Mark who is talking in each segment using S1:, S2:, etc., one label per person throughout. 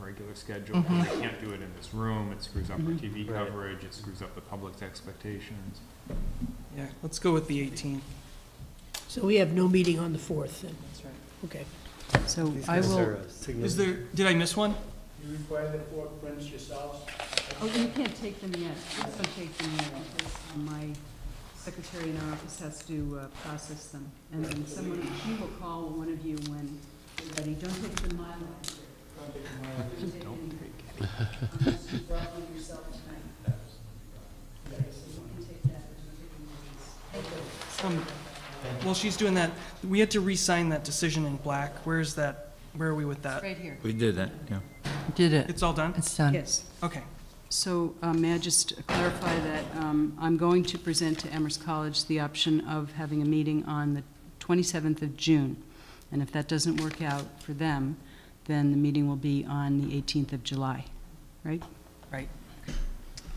S1: regular schedule, but we can't do it in this room, it screws up our TV
S2: Right.
S1: coverage, it screws up the public's expectations.
S3: Yeah, let's go with the 18.
S4: So we have no meeting on the 4th, then?
S3: That's right.
S4: Okay.
S5: So
S2: These
S5: I
S2: guys are,
S5: will,
S2: uh, signal-
S3: Is there, did I miss one?
S6: You require the four prints yourselves?
S5: oh, you can't take them yet, please don't take them yet, because my secretary in our office has to uh, process them. And then someone, she will call one of you when you're ready, don't take the Mylar. Don't take any. Unless you brought one yourself tonight. Yes, you can take that, but don't take any of these.
S3: Some, Um, well, she's doing that, we had to re-sign that decision in black. Where's that, where are we with that?
S5: Right here.
S7: We did that, yeah.
S8: Did it.
S3: It's all done?
S8: It's done.
S5: Yes.
S3: Okay.
S5: So uh, may I just clarify that um, I'm going to present to Amherst College the option of having a meeting on the 27th of June. And if that doesn't work out for them, then the meeting will be on the 18th of July, right?
S3: Right. All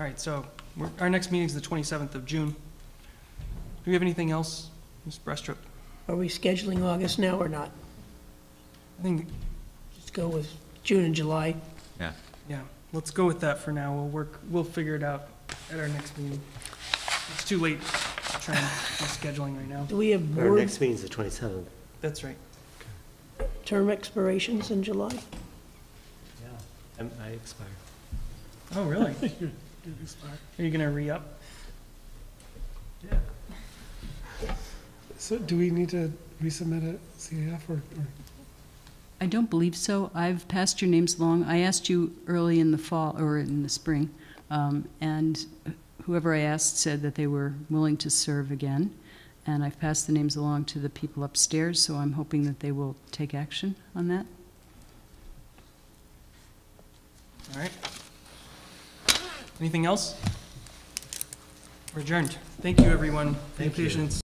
S3: right, so we're- our next meeting's the 27th of June. Do we have anything else, Ms. Brestrup?
S4: Are we scheduling August now or not?
S3: I think,
S4: Just go with June and July.
S3: yeah, let's go with that for now. We'll work, we'll figure it out at our next meeting. It's too late to try and do scheduling right now.
S4: Do we have
S2: Our
S4: board
S2: next meeting's the 27th.
S3: That's right.
S4: term expirations in July?
S2: Um, I expire.
S3: Oh, really? Are you gonna re-up?
S9: So do we need to resubmit a CAF or, or
S5: I don't believe so. I've passed your names along. I asked you early in the fall, or in the spring, um, and whoever I asked said that they were willing to serve again. And I've passed the names along to the people upstairs, so I'm hoping that they will take action on that.
S3: All right. Anything else? We're adjourned. Thank you, everyone, for your
S2: Thank you.
S3: patience.